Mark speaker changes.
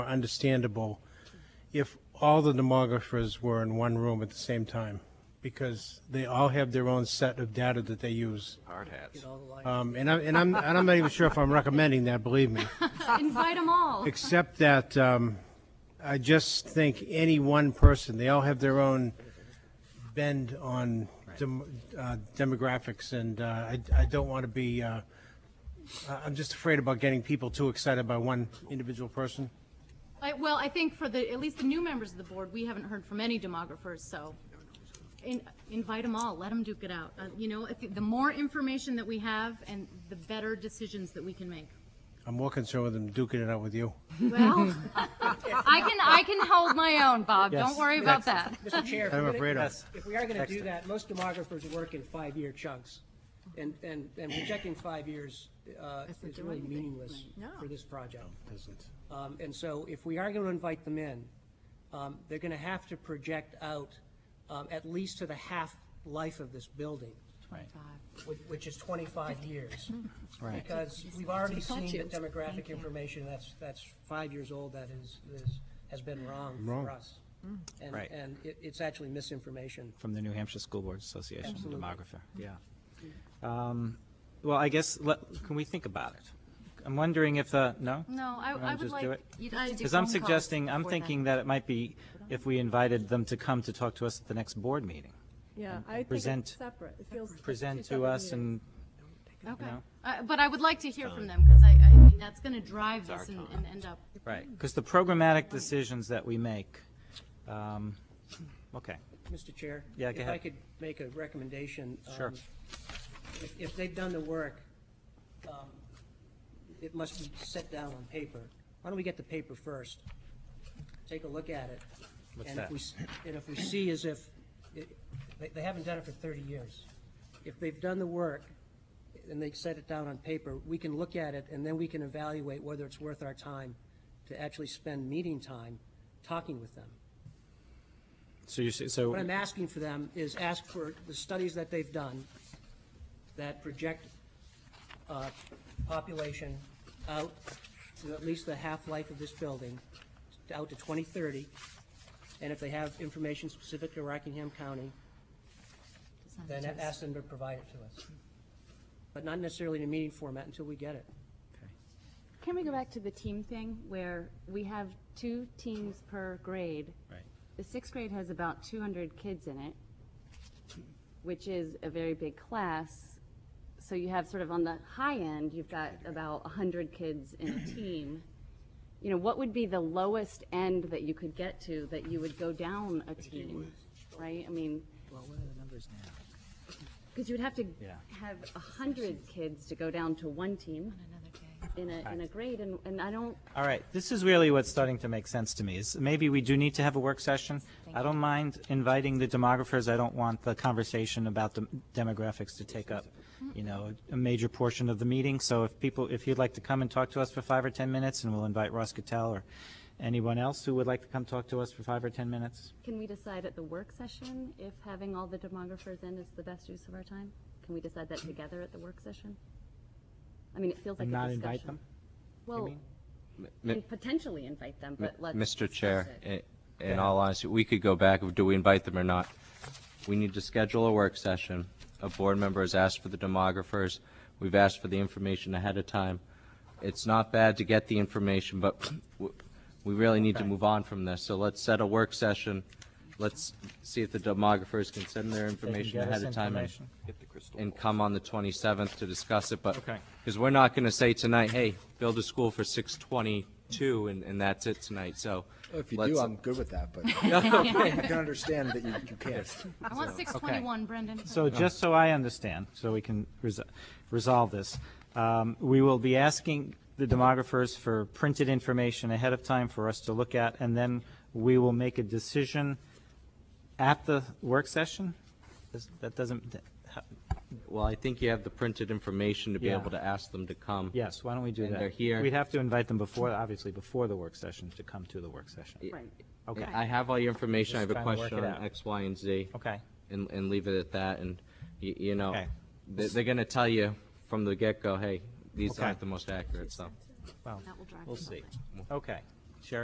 Speaker 1: understandable if all the demographers were in one room at the same time, because they all have their own set of data that they use.
Speaker 2: Hard hats.
Speaker 1: Um, And I'm, and I'm, and I'm not even sure if I'm recommending that, believe me.
Speaker 3: Invite them all.
Speaker 1: Except that um, I just think any one person, they all have their own bend on dem- uh, demographics, and uh, I I don't want to be, uh, I- I'm just afraid about getting people too excited by one individual person.
Speaker 3: I- Well, I think for the, at least the new members of the board, we haven't heard from any demographers, so in- invite them all, let them duke it out. Uh, You know, if- the more information that we have and the better decisions that we can make.
Speaker 1: I'm more concerned with them duking it out with you.
Speaker 3: Well, I can, I can hold my own, Bob, don't
Speaker 1: Yes.
Speaker 3: worry about that.
Speaker 4: Mr. Chair, if
Speaker 1: I'm
Speaker 4: we're gonna-
Speaker 1: afraid of.
Speaker 4: if we are going to do that, most demographers work in five-year chunks. And, and, and projecting five years uh, is really meaningless for this project. Um, And so if we are going to invite them in, um, they're going to have to project out um, at least to the half-life of this building, which- which is 25 years.
Speaker 2: Right.
Speaker 4: Because we've already seen
Speaker 5: you.
Speaker 4: the demographic information that's, that's five years old that is, is, has been wrong for us. And,
Speaker 2: Right.
Speaker 4: and it, it's actually misinformation.
Speaker 2: From the New Hampshire School Boards Association, demographer, yeah. Um, Well, I guess, let- can we think about it? I'm wondering if, uh, no?
Speaker 3: No, I,
Speaker 2: Wanna
Speaker 3: I would
Speaker 2: just do
Speaker 3: like.
Speaker 2: it?
Speaker 5: You'd have to do
Speaker 2: Because I'm
Speaker 5: phone calls
Speaker 2: suggesting, I'm
Speaker 5: before then.
Speaker 2: thinking that it might be if we invited them to come to talk to us at the next board meeting.
Speaker 6: Yeah, I think
Speaker 2: present-
Speaker 6: it's separate. It feels like two
Speaker 2: Present to
Speaker 6: separate
Speaker 2: us
Speaker 6: meetings.
Speaker 2: and,
Speaker 5: Mm-hmm.
Speaker 3: Okay,
Speaker 2: know?
Speaker 3: Uh, but I would like to hear from them, because I, I mean, that's going to drive this and and end up.
Speaker 2: right, because the programmatic decisions that we make, um, okay,
Speaker 4: Mr. Chair?
Speaker 2: Yeah, go
Speaker 4: If I
Speaker 2: ahead.
Speaker 4: could make a recommendation. um,
Speaker 2: Sure.
Speaker 4: If, if they've done the work, um, it must be set down on paper. Why don't we get the paper first? Take a look at it.
Speaker 2: What's
Speaker 4: and if
Speaker 2: that?
Speaker 4: we s- And if we see as if, it- they, they haven't done it for 30 years. If they've done the work and they set it down on paper, we can look at it and then we can evaluate whether it's worth our time to actually spend meeting time talking with them.
Speaker 2: so you, so,
Speaker 4: What I'm asking for them is ask for the studies that they've done that project uh, population out to at least the half-life of this building, out to 2030, and if they have information specific to Rockingham County, then ask them to provide it to us. But not necessarily in a meeting format until we get it.
Speaker 7: Can we go back to the team thing where we have two teams per grade?
Speaker 2: Right.
Speaker 7: The sixth grade has about 200 kids in it, which is a very big class. So you have sort of on the high end, you've got about 100 kids in a team. You know, what would be the lowest end that you could get to that you would go down a team, right? I mean,
Speaker 5: Well, what are the numbers now?
Speaker 7: because you would have to
Speaker 2: Yeah.
Speaker 7: have 100 kids to go down to one team in a, in a grade, and, and I don't,
Speaker 2: all right, this is really what's starting to make sense to me, is maybe we do need to have a work session. I don't mind inviting the demographers, I don't want the conversation about the demographics to take up, you know, a major portion of the meeting, so if people, if you'd like to come and talk to us for five or 10 minutes, and we'll invite Ross Cattell or anyone else who would like to come talk to us for five or 10 minutes.
Speaker 7: Can we decide at the work session if having all the demographers in is the best use of our time? Can we decide that together at the work session? I mean, it feels like a
Speaker 2: Hmm. And not
Speaker 7: discussion.
Speaker 2: invite them?
Speaker 7: Well,
Speaker 8: Mi-
Speaker 7: and potentially invite them, but let's.
Speaker 8: Mr.
Speaker 7: discuss
Speaker 8: Chair,
Speaker 7: it.
Speaker 8: i- in all honesty, we could go back, of do we invite them or not? We need to schedule a work session. A board member has asked for the demographers. We've asked for the information ahead of time. It's not bad to get the information, but w- we really need to move on from this. So let's set a work session. Let's see if the demographers can send their
Speaker 2: They can
Speaker 8: information
Speaker 2: get
Speaker 8: ahead
Speaker 2: us
Speaker 8: of time and-
Speaker 2: information.
Speaker 8: and come on the 27th to discuss it, but,
Speaker 2: Okay.
Speaker 8: because we're not going to say tonight, hey, build a school for 622 and, and that's it tonight, so.
Speaker 9: If you
Speaker 8: let's-
Speaker 9: do, I'm good with that, but I can understand that you, you can't.
Speaker 3: I want 621, Brendan.
Speaker 2: So just so I understand, so we can resol- resolve this, um, we will be asking the demographers for printed information ahead of time for us to look at, and then we will make a decision at the work session? Does- That doesn't,
Speaker 8: Well, I think you have the printed information to be
Speaker 2: Yeah.
Speaker 8: able to ask them to come.
Speaker 2: yes, why don't we do that?
Speaker 8: And they're here.
Speaker 2: We'd have to invite them before, obviously, before the work session to come to the work session.
Speaker 7: Right.
Speaker 2: Okay,
Speaker 8: I have all your information, I
Speaker 2: Just
Speaker 8: have a
Speaker 2: trying to work
Speaker 8: question
Speaker 2: it
Speaker 8: on
Speaker 2: out.
Speaker 8: X, Y, and Z.
Speaker 2: okay,
Speaker 8: And, and leave it at that, and, y- you know,
Speaker 2: Okay.
Speaker 8: they- they're going to tell you from the get-go, hey, these
Speaker 2: Okay.
Speaker 8: aren't the most accurate, so.
Speaker 2: well,
Speaker 3: That will drive
Speaker 2: we'll
Speaker 3: them
Speaker 2: see. Okay,